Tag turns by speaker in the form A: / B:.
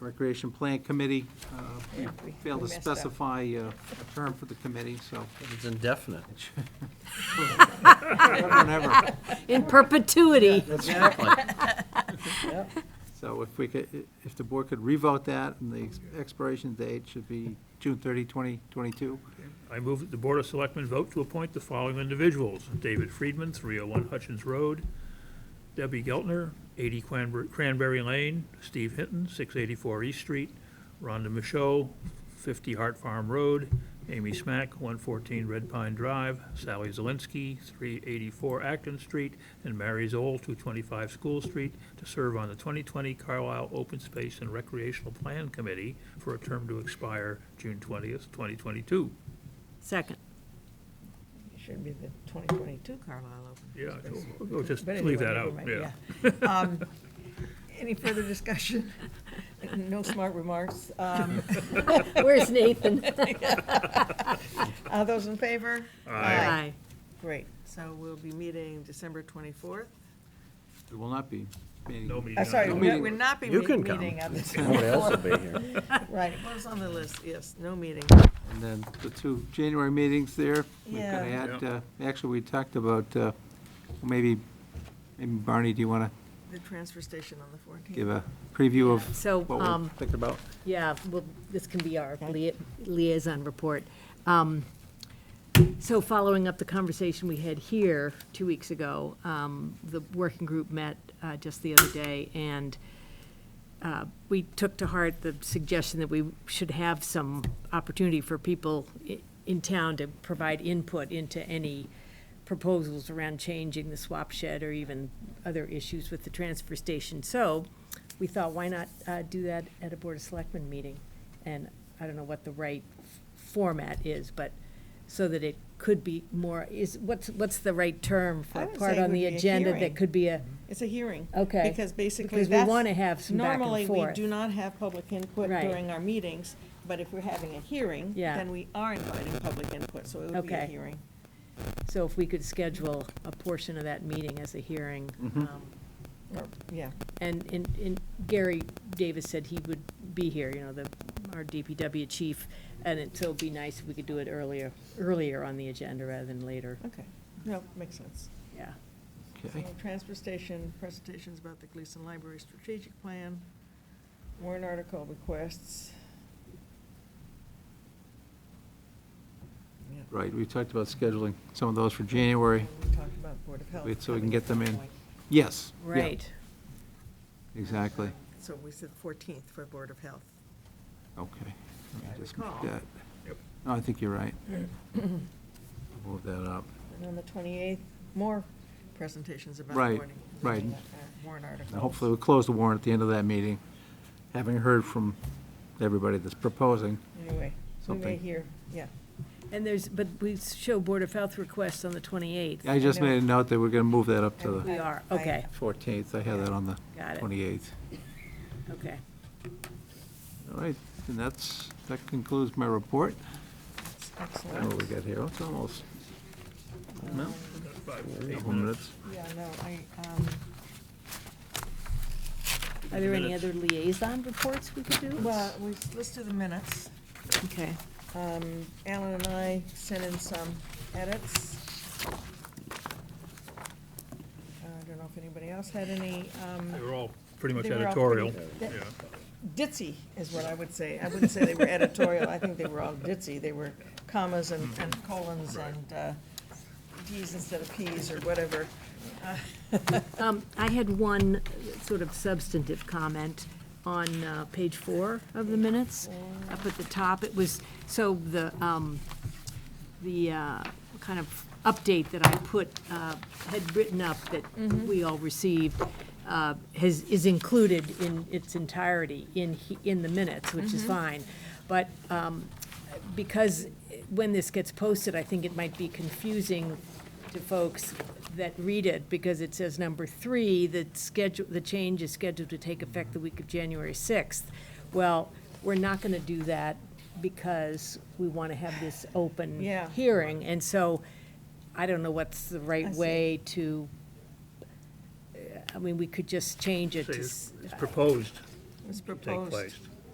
A: Recreation Plan Committee. uh,
B: Yeah, we-
A: Failed
B: we
A: to
B: messed up.
A: specify uh, a term for the committee, so
C: It's indefinite.
A: whatever.
D: In perpetuity.
C: Exactly.
A: So if we could, if the board could revote that, and the expiration date should be June 30, 2022.
E: I move that the Board of Selectmen vote to appoint the following individuals. David Friedman, 301 Hutchins Road. Debbie Geltner, 80 Cranber- Cranberry Lane. Steve Hinton, 684 East Street. Rhonda Michaud, 50 Hart Farm Road. Amy Smack, 114 Red Pine Drive. Sally Zielinski, 384 Acton Street. And Mary Zoll, 225 School Street, to serve on the 2020 Carlisle Open Space and Recreational Plan Committee for a term to expire June 20th, 2022.
D: Second.
B: It Should be the 2022 Carlisle Open.
E: Yeah,
B: Space.
E: we'll- we'll just
B: But
E: leave that
B: anyway,
E: out,
B: never
E: yeah.
B: mind, Um, Any further discussion? No smart remarks. Um,
D: Where's Nathan?
B: All those in favor?
E: Aye.
B: Great, so we'll be meeting December 24th.
A: It will not be. meeting.
E: No meeting.
B: Uh,
E: on
B: Sorry,
A: No
E: that.
B: we're
A: meeting.
B: we're not be
C: You
B: me-
C: can come.
B: meeting on this.
C: Somebody else will be here.
B: Right, it was on the list, yes, no meeting.
A: And then the two January meetings there, we could
B: Yeah.
A: add, uh, actually, we talked about, uh, maybe, maybe Barney, do you want to
B: The transfer station on the 14th.
A: give a preview of
D: So,
A: what we're
D: um,
A: thinking about?
D: yeah, well, this can be our lia- liaison report. Um, So following up the conversation we had here two weeks ago, um, the working group met uh, just the other day, and uh, we took to heart the suggestion that we should have some opportunity for people i- in town to provide input into any proposals around changing the swap shed or even other issues with the transfer station. So we thought, why not uh, do that at a Board of Selectmen meeting? And I don't know what the right f- format is, but so that it could be more, is, what's, what's the right term for
B: I
D: a
B: would
D: part
B: say it
D: on
B: would
D: the
B: be a
D: agenda
B: hearing.
D: that could be a,
B: It's a hearing.
D: Okay.
B: Because basically
D: Because
B: that's.
D: we wanna have some back and
B: Normally, we
D: forth.
B: do not have public input
D: Right.
B: during our meetings, but if we're having a hearing,
D: Yeah.
B: then we are inviting public input, so it would be a
D: Okay.
B: hearing.
D: so if we could schedule a portion of that meeting as a hearing, um,
B: Or- Yeah,
D: And, and, and Gary Davis said he would be here, you know, the, our DPW chief, and it, so it'd be nice if we could do it earlier, earlier on the agenda rather than later,
B: okay. No, makes sense.
D: yeah.
A: Okay.
B: So, Transfer station, presentations about the Gleason Library strategic plan, warrant article requests. Yeah.
A: Right, we talked about scheduling some of those for January.
B: And We talked about Board of Health.
A: Wait, so we can
B: coming
A: get
B: at
A: them
B: some
A: in.
B: point.
A: Yes. yeah,
D: Right,
A: Exactly.
B: So we said 14th for Board of Health.
A: Okay. Let me
B: I
A: just make
B: recall.
A: that- No, I think you're right. Move that up.
B: And on the 28th, more presentations about
A: Right,
B: warning-
A: right.
B: uh, warrant articles.
A: And hopefully, we'll close the warrant at the end of that meeting, having heard from everybody that's proposing.
B: Anyway, we may
A: something.
B: hear, yeah.
D: and there's, but we show Board of Health requests on the twenty-eighth.
A: I just
B: know.
A: made a note that we're going to move that up to the
D: We are,
B: I-
D: okay,
A: 14th. I had that on the
D: Got it.
A: 28th.
D: okay.
A: All right, and that's, that concludes my report.
B: That's
A: I don't know what
B: Excellent.
A: we got here. It's almost, no,
E: Five,
A: a
E: eight
A: couple minutes.
B: Yeah, no, I, um,
D: Are there any
E: Minutes.
D: other liaison reports we could do?
B: well, we, let's do the minutes.
D: Okay,
B: Um, Alan and I sent in some edits. I don't know if anybody else had any, um,
E: They were all pretty much
B: They were all
E: editorial,
B: pretty-
E: yeah.
B: ditzy is what I would say. I wouldn't say they were editorial, I think they were all ditzy. They were commas and, and colons and, uh, Ds instead of Ps or whatever.
D: um, I had one sort of substantive comment on, uh, page four of the minutes. Up at the top, it was, so the, um, the uh, kind of update that I put, uh, had written up that we all received, uh, has, is included in its entirety in, he- in the minutes, which is fine. But um, because when this gets posted, I think it might be confusing to folks that read it, because it says number three, that schedule, the change is scheduled to take effect the week of January 6th. Well, we're not going to do that because we want to have this open
B: Yeah.
D: hearing. And so I don't know what's the
B: I
D: right
B: see.
D: way to, uh, I mean, we could just change it
E: Say
D: to,
E: It's
D: s-
E: it's proposed
B: It was
E: to take
B: proposed.
E: place.